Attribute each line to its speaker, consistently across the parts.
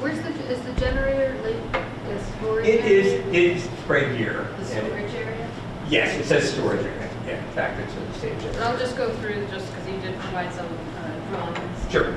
Speaker 1: Where's the, is the generator, li- is storage?
Speaker 2: It is,
Speaker 1: area?
Speaker 2: it is right here.
Speaker 1: The
Speaker 2: and-
Speaker 1: storage area?
Speaker 2: Yes, it says storage area. Yeah, in fact, it's a stage.
Speaker 3: And I'll just go through, just because you did provide some uh, drawings.
Speaker 2: Sure.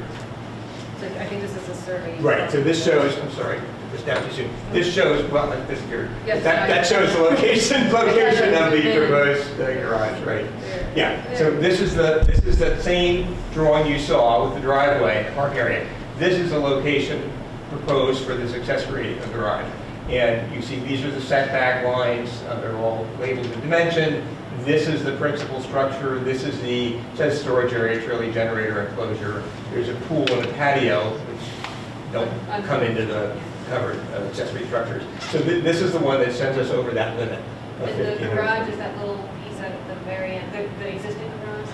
Speaker 3: So I think this is a survey.
Speaker 2: Right, so this shows, I'm sorry, this now too soon. This shows, well, like this here.
Speaker 3: Yes,
Speaker 2: That, that
Speaker 3: I-
Speaker 2: shows the location, location of the
Speaker 3: Yeah.
Speaker 2: proposed uh, garage, right?
Speaker 3: There.
Speaker 2: Yeah, so this is the, this is the same drawing you saw with the driveway, the park area. This is the location proposed for this accessory garage. And you see, these are the setback lines, uh, they're all labeled in dimension. This is the principal structure, this is the, says storage area, trailer generator enclosure. There's a pool and a patio, which don't come into the covered uh, accessory structures. So thi- this is the one that sends us over that limit of
Speaker 3: And the
Speaker 2: 1,500.
Speaker 3: garage is that little piece at the very end, the, the existing garage?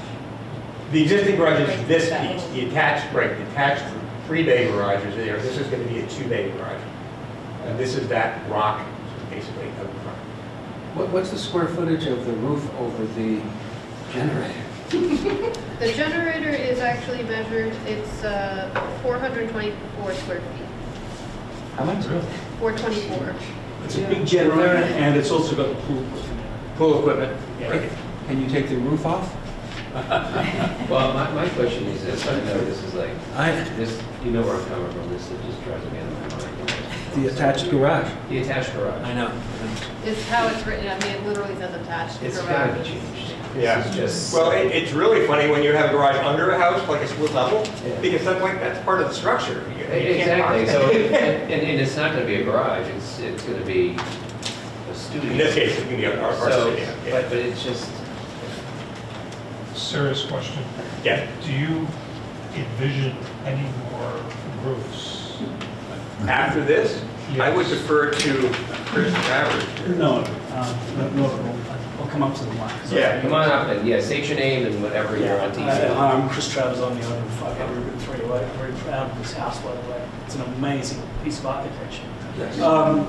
Speaker 2: The existing garage is this piece, the attached, right, the attached three-bay garage is there, this is gonna be a two-bay garage. And this is that rock, basically, up front.
Speaker 4: What, what's the square footage of the roof over the generator?
Speaker 1: The generator is actually measured, it's uh, 424 square feet,
Speaker 4: How much?
Speaker 1: 424.
Speaker 5: It's a big generator, and it's also got a pool.
Speaker 2: Pool equipment,
Speaker 5: Yeah.
Speaker 4: Can you take the roof off?
Speaker 6: Well, my, my question is this, I know this is like,
Speaker 4: I,
Speaker 6: this, you know where I'm coming from, this is just drives me out of my mind.
Speaker 4: the attached garage.
Speaker 6: The attached garage.
Speaker 4: I know.
Speaker 1: Is how it's written, I mean, it literally says attached
Speaker 6: It's gotta be
Speaker 1: garage.
Speaker 6: changed.
Speaker 2: Yeah.
Speaker 6: This is just.
Speaker 2: Well, it, it's really funny when you have a garage under a house, like a split level,
Speaker 6: Yeah.
Speaker 2: because that's like, that's part of the structure. You- you can't
Speaker 6: Exactly,
Speaker 2: box
Speaker 6: so,
Speaker 2: it.
Speaker 6: it- and, and it's not gonna be a garage, it's, it's gonna be a studio.
Speaker 2: In this case, it's gonna be a, our, our
Speaker 6: So,
Speaker 2: studio,
Speaker 6: But,
Speaker 2: yeah.
Speaker 6: but it's just,
Speaker 7: Serious question.
Speaker 2: Yeah,
Speaker 7: Do you envision any more roofs?
Speaker 2: after this, I would defer to Chris Travers.
Speaker 5: No, uh, no, no, I'll come up to the mic.
Speaker 2: Yeah,
Speaker 6: come on up and, yeah, state your name and whatever you're on
Speaker 5: Hi,
Speaker 4: Uh,
Speaker 6: TV.
Speaker 5: I'm Chris Travers, I'm the owner of 500 Route 308. I'm very proud of this house, by the way. It's an amazing piece of architecture. Um,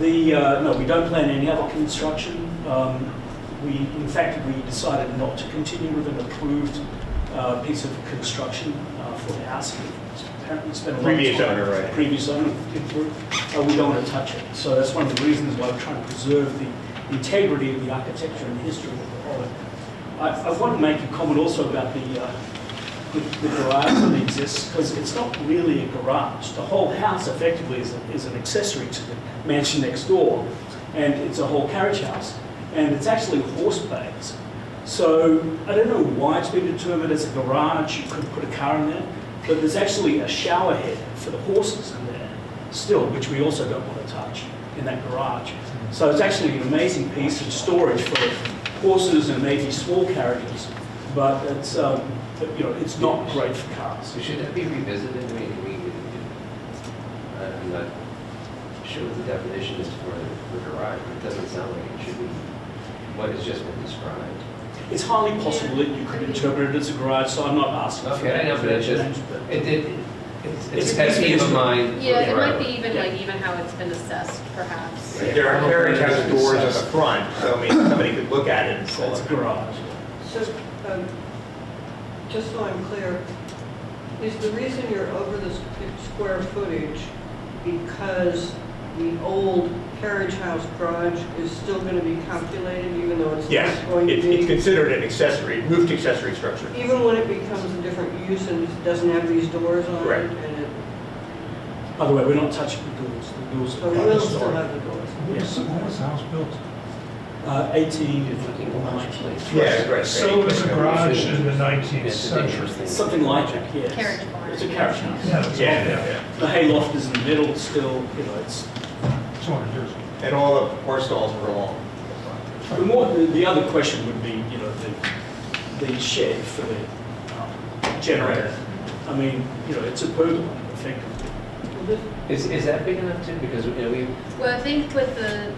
Speaker 5: The, uh, no, we don't plan any other construction. Um, We, in fact, we decided not to continue with an approved uh, piece of construction uh, for the house. Apparently spent a lot of
Speaker 2: Previous
Speaker 5: time-
Speaker 2: owner, right.
Speaker 5: Previous owner, did work. Uh, we don't want to touch it. So that's one of the reasons why we're trying to preserve the integrity of the architecture and the history of it. I, I want to make a comment also about the, uh, the the garage that exists, because it's not really a garage. The whole house effectively is, a- is an accessory to the mansion next door, and it's a whole carriage house, and it's actually horse bays. So I don't know why it's been determined as a garage, you could put a car in there, but there's actually a shower head for the horses in there still, which we also don't want to touch in that garage. So it's actually an amazing piece of storage for horses and maybe small carriages, but it's, um, you know, it's not great for cars.
Speaker 6: So should that be revisited, I mean, we, we- I'm not sure what the definition is for the garage, but it doesn't sound like it should be, what has just been described.
Speaker 5: It's highly possible that you could interpret it as a garage, so I'm not asking for
Speaker 6: Okay, I know,
Speaker 5: that
Speaker 6: but it's just-
Speaker 5: change, but-
Speaker 6: It, it, it's,
Speaker 5: It's
Speaker 6: it's
Speaker 5: a
Speaker 6: a pet peeve of
Speaker 5: confusion.
Speaker 6: mine.
Speaker 3: Yeah, it might
Speaker 6: Right.
Speaker 3: be even like even how it's been assessed perhaps.
Speaker 2: There are carriage house doors on the front, so I mean, somebody could look at it and
Speaker 5: So
Speaker 2: call
Speaker 5: it's
Speaker 2: it.
Speaker 5: a garage.
Speaker 8: So, um, just so I'm clear, is the reason you're over the squ- square footage because the old carriage house garage is still going to be calculated even though it's
Speaker 2: Yes,
Speaker 8: not going to
Speaker 2: it- it's
Speaker 8: be?
Speaker 2: considered an accessory, roofed accessory structure.
Speaker 8: Even when it becomes a different use and it doesn't have these doors on it?
Speaker 2: Correct.
Speaker 8: and it-
Speaker 5: By the way, we're not touching the doors, the doors
Speaker 8: So
Speaker 5: are
Speaker 8: it
Speaker 5: part of
Speaker 8: Oh, will
Speaker 5: the
Speaker 8: still
Speaker 5: story.
Speaker 8: have the doors?
Speaker 7: When was, when was the house built?
Speaker 5: Uh, 18,
Speaker 2: Yeah, right.
Speaker 7: So it was a garage in the 19th century.
Speaker 5: something like that, yes.
Speaker 3: Carriage barn.
Speaker 5: It's a carriage house.
Speaker 7: Yeah, it's all
Speaker 2: Yeah,
Speaker 7: there.
Speaker 2: yeah,
Speaker 5: The hayloft is in the middle still, you know, it's
Speaker 7: 200 years ago.
Speaker 2: yeah. And all the horse stalls were long.
Speaker 5: The more, the the other question would be, you know, the, the shed for the um, generator. I mean, you know, it's a pergola, I think.
Speaker 6: Is, is that big enough too? Because, you know, we,
Speaker 1: Well, I think with the,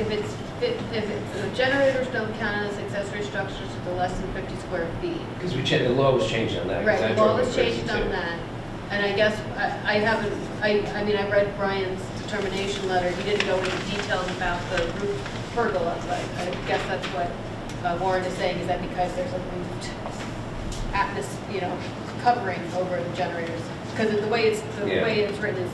Speaker 1: if it's, fi- if it's, the generators don't count as accessory structures to the less than 50 square feet.
Speaker 6: because we changed, the law was changed on that. 'cause I
Speaker 1: Right, the law
Speaker 6: drove
Speaker 1: was
Speaker 6: crazy,
Speaker 1: changed
Speaker 6: too.
Speaker 1: on that, and I guess, I I haven't, I, I mean, I read Brian's determination letter, he didn't go into details about the roof pergola, but I guess that's what uh, Warren is saying, is that because there's a roofed atmos, you know, covering over the generators, because the way it's, the
Speaker 6: Yeah.
Speaker 1: way it's written is